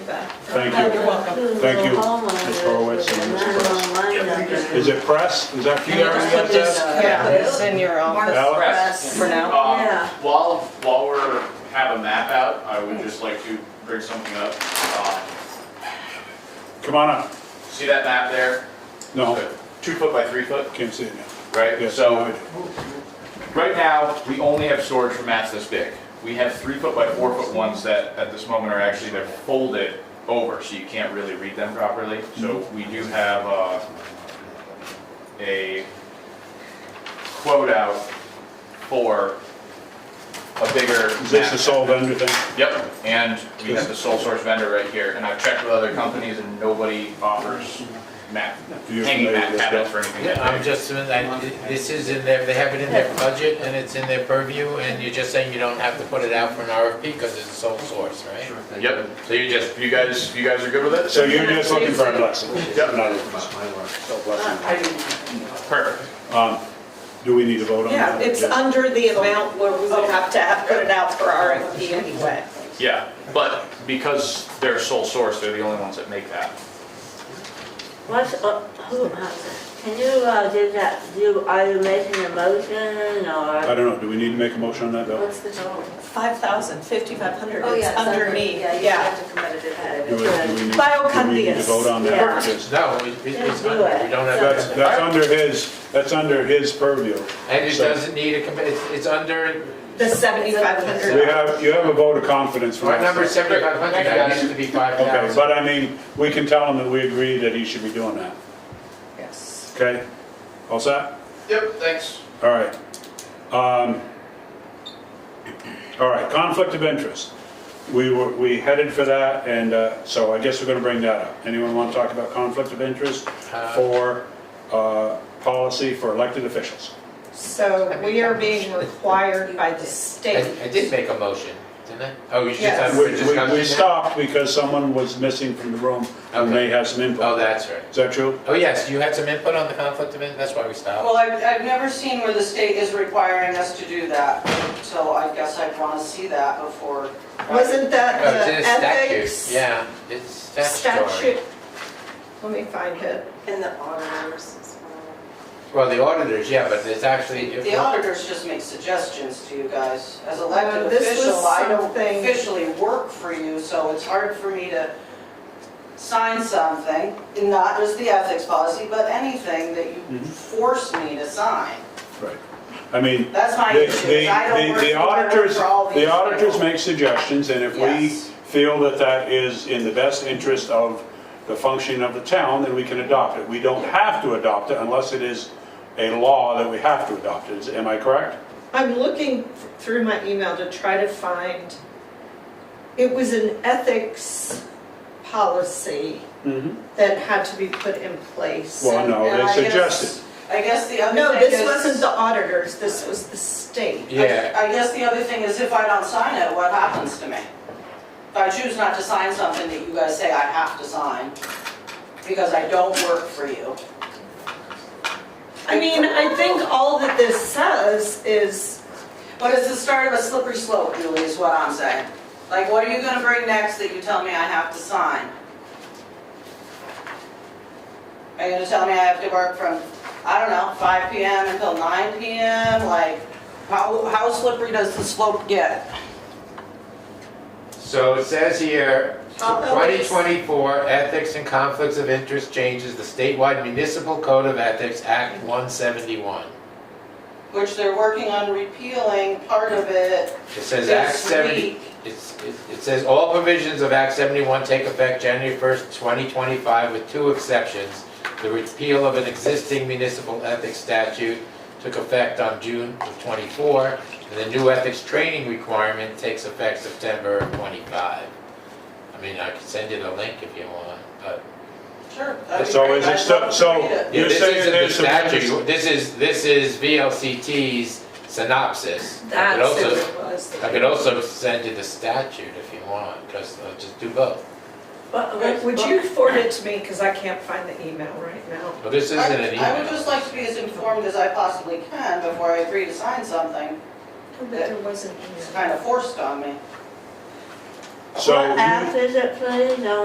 Thank you. You're welcome. Thank you, Ms. Horowitz and Ms. Press. Is it Press? Is that E you? Can you just put this, Ariana? yeah, this in your office Alex? for now? Um, Yeah. While, while we're, have a map out, I would just like to bring something up. Um, Come on up. See that map there? No, Two foot by three foot, can't see it now. right? Yes, now I So do. right now, we only have storage for mats this big. We have three foot by four foot ones that at this moment are actually, they're folded over, so you can't really read them properly. So Mm-hmm. we do have uh, a quote out for a bigger Is this mat. the sole vendor thing? Yep, and we have the sole source vendor right here, and I've checked with other companies and nobody offers mat, You're hanging mat familiar with that? cabinets or anything. Yeah, I'm just, I- this is in their, they have it in their budget and it's in their purview and you're just saying you don't have to put it out for an RFP because it's sole source, right? Yep, so you just, you guys, you guys are good with it? So you're just looking for a blessing? Yep. Not a So blessing. Perfect. Um, Do we need to vote on Yeah, that? It's under the amount where we would have to have put it out for RFP anyway. Yeah, but because they're sole source, they're the only ones that make that. What's, uh, who, uh, can you, uh, do that, do, are you making a motion I or? don't know, do we need to make a motion on that, Bill? What's the total? 5,000, 5,500, Oh, it's yeah. underneath, Yeah, you yeah. have to commit it ahead. Do we- do we need- Bio Do we need to Cundius. vote on Yeah. that? Because No, it- it's not, we don't That's, have, that's under his, that's under his purview. and it doesn't need a, commi- it's, it's under, The We 7,500. have, you have a vote of confidence from our us. number seventy-five hundred, that used to be five Okay, thousand. but I mean, we can tell him that we agree that he should be doing that, Yes. okay? All set? Yep, thanks. All right. Um, All right, conflict of interest. We were, we headed for that, and uh, so I guess we're gonna bring that up. Anyone want to talk about conflict of interest Uh, for uh, policy for elected officials? So we are being required by the state. I I did make a motion, didn't I? Oh, you just Yes. have We- for We we discussion? now? stopped because someone was missing from the room who may have some Oh, input. that's right. Is that true? Oh, yes, you had some input on the conflict of, in- that's why we stopped. Well, I've, I've never seen where the state is requiring us to do that, so I guess I'd want to see that before. Wasn't that Oh, it's in a the statute, ethics? yeah, it's statutory. Statute. Let me find it. And the auditors as well. Well, the auditors, yeah, but it's actually. The auditors just make suggestions to you guys. As Uh, elected this was official, I don't something- officially work for you, so it's hard for me to sign something, not just the ethics policy, but anything that you Mhm. force me to sign. Right. I mean, That's the my issue, is I don't the- work the for- I work auditors, for all these the auditors people. make suggestions, and if we Yes. feel that that is in the best interest of the functioning of the town, then we can adopt it. We don't have to adopt it unless it is a law that we have to adopt it. Is- Am I correct? I'm looking through my email to try to find, it was an ethics policy Mm-hmm. that had to be put in place. Well, no, And they I guess- suggested. I guess the other No, thing this is- wasn't the auditors, this was the state. Yeah, I guess the other thing is if I don't sign it, what happens to me? If I choose not to sign something that you guys say I have to sign, because I don't work for you. I mean, I think all that this says is, But it's the start of a slippery slope, Julie, is what I'm saying. Like, what are you gonna bring next that you tell me I have to sign? Are you gonna tell me I have to work from, I don't know, 5 PM until 9 PM? Like, how, how slippery does the slope get? so it says here, Although it's- 2024 Ethics and Conflicts of Interest Changes the Statewide Municipal Code of Ethics, Act 171. Which they're working on repealing part of it It says Act this 70, week. it's- it it says all provisions of Act 71 take effect January 1st, 2025, with two exceptions. The repeal of an existing municipal ethics statute took effect on June of 24, and the new ethics training requirement takes effect September of 25. I mean, I can send you the link if you want, but. Sure. that'd be So great. is it I'd so- love to so- read it. You're Yeah, this saying isn't the there's some- statute, this is, this is VLCT's synopsis. I could that's who also- it was. I could also send you the statute if you want, because I'll just do both. Would- Would you forward it to me, because I can't find the email right now? But this isn't an I I would just email. like to be as informed as I possibly can before I agree to sign something. But there was an email. It's kind of forced on me. So you- What app is it, please?